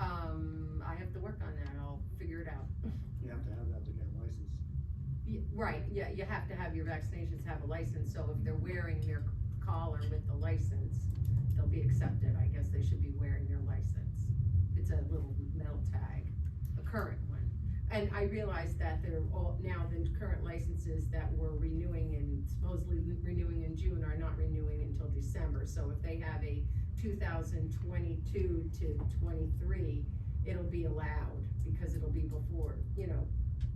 Um, work on that, I'll figure it out. You have to have that to get a license. Y- Right, yeah, you have to have your vaccinations have a license, so if they're wearing their collar with the license, they'll be accepted, I guess they should be wearing their license. It's a little metal tag, a current one. And I realize that they're all, now the current licenses that were renewing and supposedly renewing in June are not renewing until December. So if they have a two thousand twenty-two to twenty-three, it'll be allowed, because it'll be before, you know,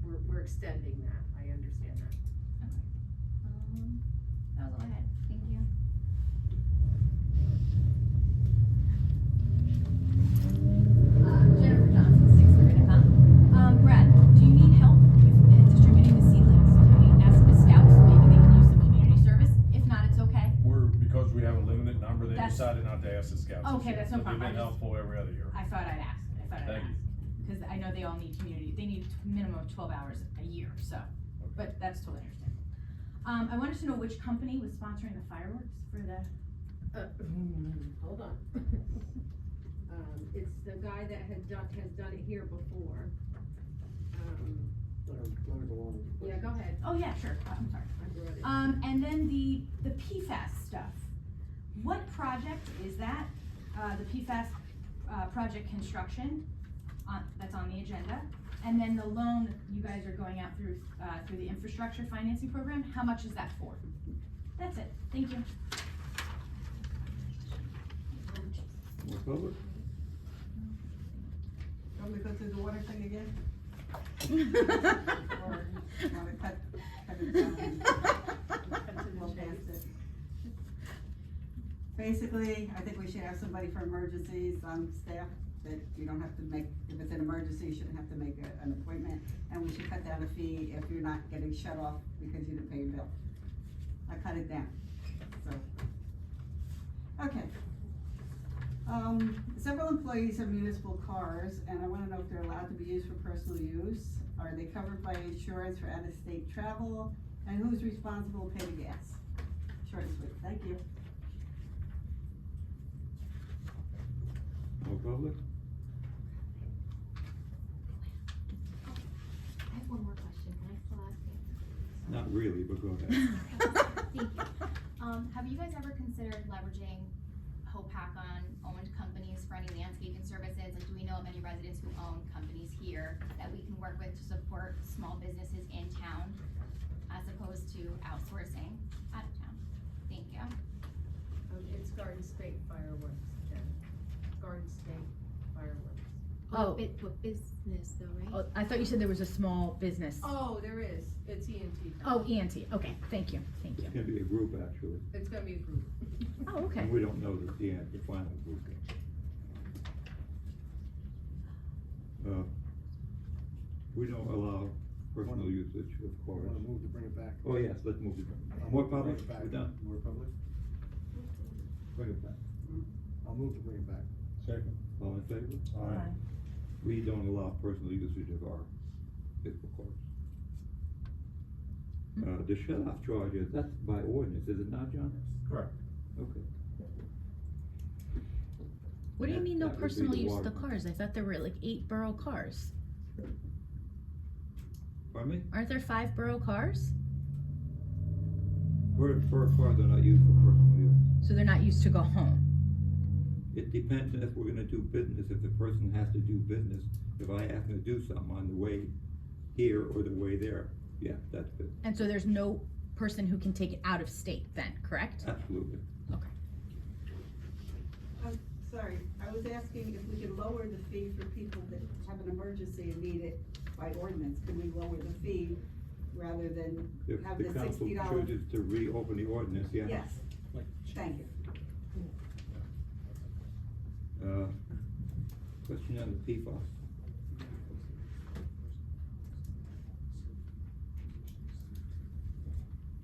we're, we're extending that, I understand that. Um, That was all I had, thank you. Uh, Jennifer Johnson, sixth grade, huh? Um, Brad, do you need help with uh, distributing the seedlings? Can we ask the scouts, maybe they can use some community service? If not, it's okay. We're, because we have a limited number, they That's- decided not to ask the scouts. this Okay, year, that's no but problem. They've been I just- helpful every other year. I thought I'd ask, I thought I'd Thank you. ask. Because I know they all need community, they need a minimum of twelve hours a year, so, but that's totally understandable. Um, I wanted to know which company was sponsoring the fireworks for the, Uh, Hold on. Um, it's the guy that had done, has done it here before. Um, Let her, let her go on. with it. yeah, go ahead, oh yeah, sure, I'm sorry. I brought it. Um, and then the, the PFAS stuff. What project is that? Uh, the PFAS, uh, project construction, on, that's on the agenda. And then the loan that you guys are going out through, uh, through the infrastructure financing program, how much is that for? That's it, thank you. We're covered? Want me to go through the water thing again? Or you wanna cut, cut it Um, down? We'll pass it. Basically, I think we should have somebody for emergencies on staff, that you don't have to make, if it's an emergency, you shouldn't have to make a- an appointment. And we should cut down a fee if you're not getting shut off because you didn't pay your bill. I cut it down, so. Okay. Um, several employees have municipal cars, and I wanna know if they're allowed to be used for personal use? Are they covered by insurance for out-of-state travel? And who's responsible to pay the gas? Short and sweet, thank you. More public? I have one more question, can I still ask it? Not really, but go Thank you. Um, have you guys ever considered leveraging HOPAC on owned companies for any landscaping services? Like, do we know of any residents who own companies here that we can work with to support small businesses in town as opposed to outsourcing out of town? Thank you. Um, it's Garden State fireworks, Jen. Garden State fireworks. Oh. Bit, what business though, right? Oh, I thought you said there was a small business. Oh, there is, it's E ENT. E Oh, ENT, okay, thank you, thank you. It's gonna be a group actually, It's gonna be a group. Oh, okay. and we don't know the, the, the final group yet. Uh, We don't allow personal usage I of wanna cars. move to bring it back. Oh, yes, let's move it. More Bring public, it back. we're done. More public? Bring it back. I'll move to bring it back. Second. All in favor? Aye. We don't allow personal usage of our fiscal cars. Uh, the shut-off charge, is- that's by ordinance, is it not, John? Correct. Okay. What do you That- mean no that would be personal the use of the waterfront. cars? I thought there were like eight borough cars. Pardon me? Aren't there five borough cars? Per, per car, they're not used for personal use. So they're not used to go home. It depends on if we're gonna do business, if the person has to do business, if I ask them to do something on the way here or the way there, yeah, that's good, And so there's no person who can take it out of state then, correct? absolutely. Sorry, I was asking if we could lower the fee for people that have an emergency and need it by ordinance, can we lower the fee rather than If have the the council sixty dollar? chooses to reopen the ordinance, yeah. Yes, thank you. Uh, question on the PFAS,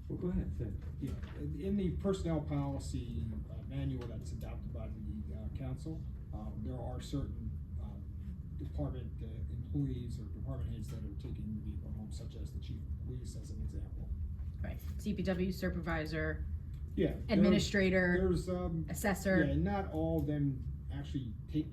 well, go ahead, say, it. Yeah, in- in the personnel policy uh, manual that's adopted by the uh, council, um, there are certain um, department uh, employees or department heads that are taking the vehicle home, such as the chief of police as an example. Right. CPW supervisor, Yeah. there- administrator, There's, um, yeah, assessor. not all of them actually take the